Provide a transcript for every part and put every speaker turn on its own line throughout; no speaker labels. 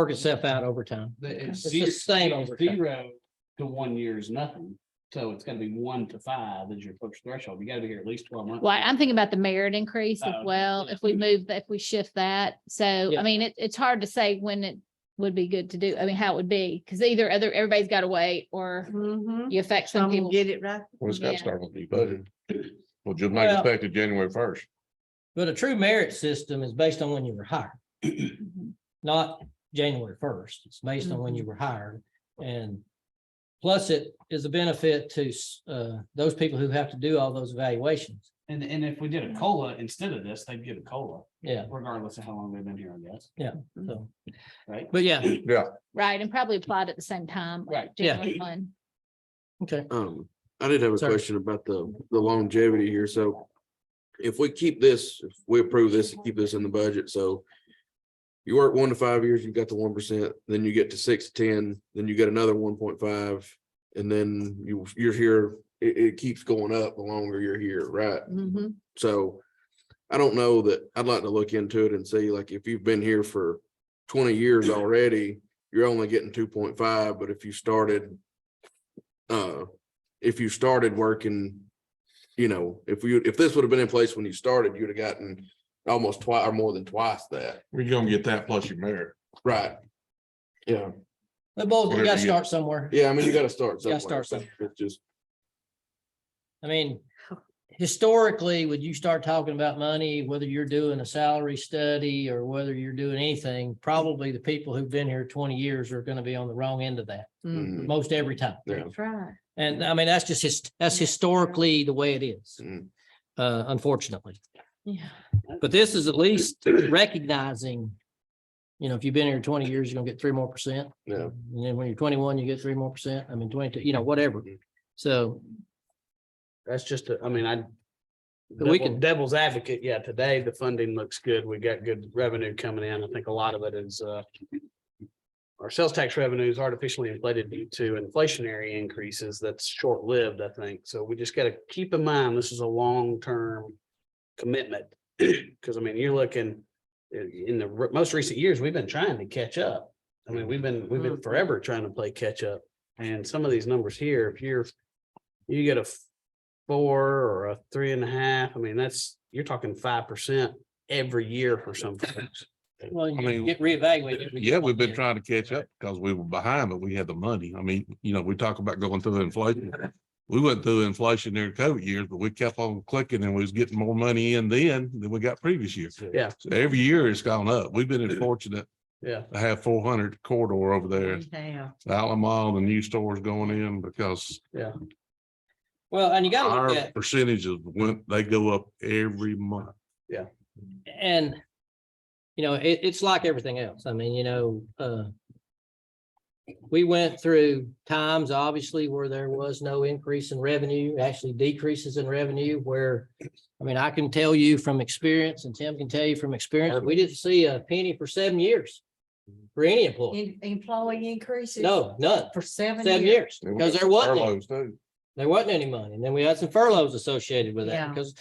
Work itself out over time.
The- It's
It's the
zero
same
it's
over time.
zero to one year is nothing. So it's gonna be one to five is your first threshold. You gotta be here at least twelve months.
Well, I'm thinking about the merit increase as
Oh,
well,
yeah.
if we move, if we shift that. So,
Yeah.
I mean, it, it's hard to say when it would be good to do, I mean, how it would be, because either other, everybody's got to wait or
Mm-hmm.
Mhm.
you affect some
Some will
people.
get it right.
Well, it's got
Yeah.
to start with the budget. Well, just make
Well-
effective January first.
But a true merit system is based on when you were hired,
Mhm.
not January first. It's based on when you were hired and plus it is a benefit to uh those people who have to do all those evaluations.
And, and if we did a COLA instead of this, they'd get a COLA
Yeah,
regardless of how long they've been here, I guess,
so,
right?
but yeah,
Yeah,
Right, and probably applied at the same time. like
Right.
Yeah.
January one.
okay.
Um, I did have a
Sorry.
question about the, the longevity here, so. If we keep this, if we approve this and keep this in the budget, so. You work one to five years, you got the one percent, then you get to six, to ten, then you get another one point five. And then you, you're here, it, it keeps going up the longer you're here, right?
Mm-hmm.
Mhm.
So I don't know that, I'd like to look into it and see, like, if you've been here for twenty years already, you're only getting two point five, but if you started uh, if you started working, you know, if you, if this would have been in place when you started, you'd have gotten almost twice or more than twice that,
we're gonna get that plus your merit.
right? Yeah,
But both, you
Whatever
gotta
you-
start somewhere.
yeah, I mean, you gotta start
Gotta
somewhere.
start
It's just.
I mean, historically, would you start talking about money, whether you're doing a salary study or whether you're doing anything? Probably the people who've been here twenty years are gonna be on the wrong end of that,
Mm-hmm.
Mm,
mm,
most every time.
Yeah.
That's right.
And I mean, that's just his, that's historically the way it is,
Mm-hmm.
Mm.
uh, unfortunately.
Yeah.
But this is at least
mm-hmm.
recognizing, you know, if you've been here twenty years, you're gonna get three more percent.
Yeah.
And then when you're twenty-one, you get three more percent. I mean, twenty-two, you know, whatever.
Mm-hmm.
So
That's just, a- I mean, I.
We
devil-
can-
Devil's advocate, yeah, today the funding looks good. We got good revenue coming in. I think a lot of it is, uh. Our sales tax revenue is artificially inflated due to inflationary increases that's short-lived, I think. So we just gotta keep in mind, this is a long-term. Commitment, because I mean, you're looking, in, in the re- most recent years, we've been trying to catch up. I mean, we've been, we've been forever trying to play catch up. And some of these numbers here, if you're, you get a f- four or a three and a half, I mean, that's, you're talking five percent every year for some folks.
Well,
I
you
mean,
get reevaluated. every
Yeah, we've been
year.
trying to catch up because we were behind, but we had the money. I mean, you know, we talk about going through inflation. We went through inflation during COVID years, but we kept on clicking and we was getting more money in then than we got previous years.
Yeah.
So Every year it's gone up. We've been fortunate
Yeah.
to have four hundred corridor over
Mm-hmm.
there.
Yeah.
Alamo, the new stores going in because
Well, and you gotta look
our
at,
percentages went, they go up every month.
and, you know, it, it's like everything else. I mean, you know, uh, we went through times, obviously, where there was no increase in revenue, actually decreases in revenue where, I mean, I can tell you from experience and Tim can tell you from experience, we didn't see a penny for seven years for any employee.
In- Employee increases.
No, none,
For seven
seven
years.
years, because there wasn't. any.
Furloughs too.
There wasn't any money. And then we had some furloughs associated with that
Yeah.
because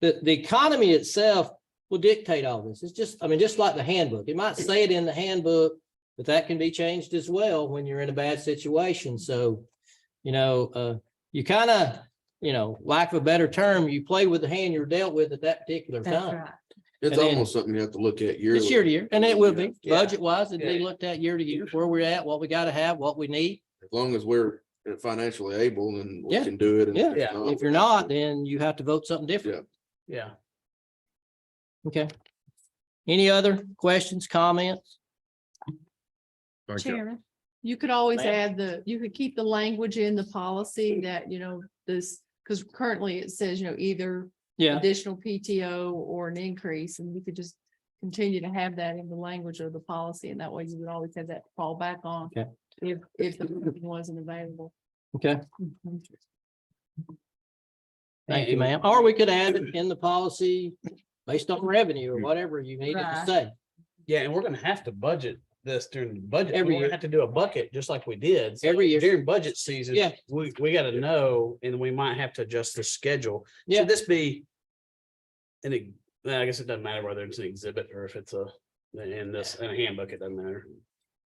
the, the economy itself will dictate all this. It's just, I mean, just like the handbook. It might say it in the handbook, but that can be changed as well when you're in a bad situation. So, you know, uh, you kind of, you know, lack of a better term, you play with the hand you're dealt with at that particular
That's
time.
right.
It's
And then-
almost something you have to look at yearly.
It's year to year, and it will be
Yeah.
budget wise. It'd be
Yeah.
looked at year to year, where we're at, what we got to have, what we need.
As long as we're uh, financially able and we
Yeah.
can do it. and
Yeah.
if
Yeah.
not,
If you're not, then you have to vote something different.
Yeah.
Okay. Any other questions, comments?
Thank you.
Chairman, you could always
Ma'am.
add the, you could keep the language in the policy that, you know, this, because currently it says, you know, either
Yeah,
additional PTO or an increase, and we could just continue to have that in the language of the policy, and that way you would always have that to fall back on
Okay.
if, if the funding wasn't available.
okay.
Mhm.
Thank you, ma'am. Or we could add it in the policy based on revenue or whatever you needed to
Right.
say.
Yeah, and we're gonna have to budget this during the budget.
Every
We're gonna
year.
have to do a bucket, just like we did. So
Every year.
During budget season.
Yeah.
We, we gotta know, and we might have to adjust the schedule.
Yeah.
Should this be? And I guess it doesn't matter whether it's an exhibit or if it's a, in this, in a handbook, it doesn't matter.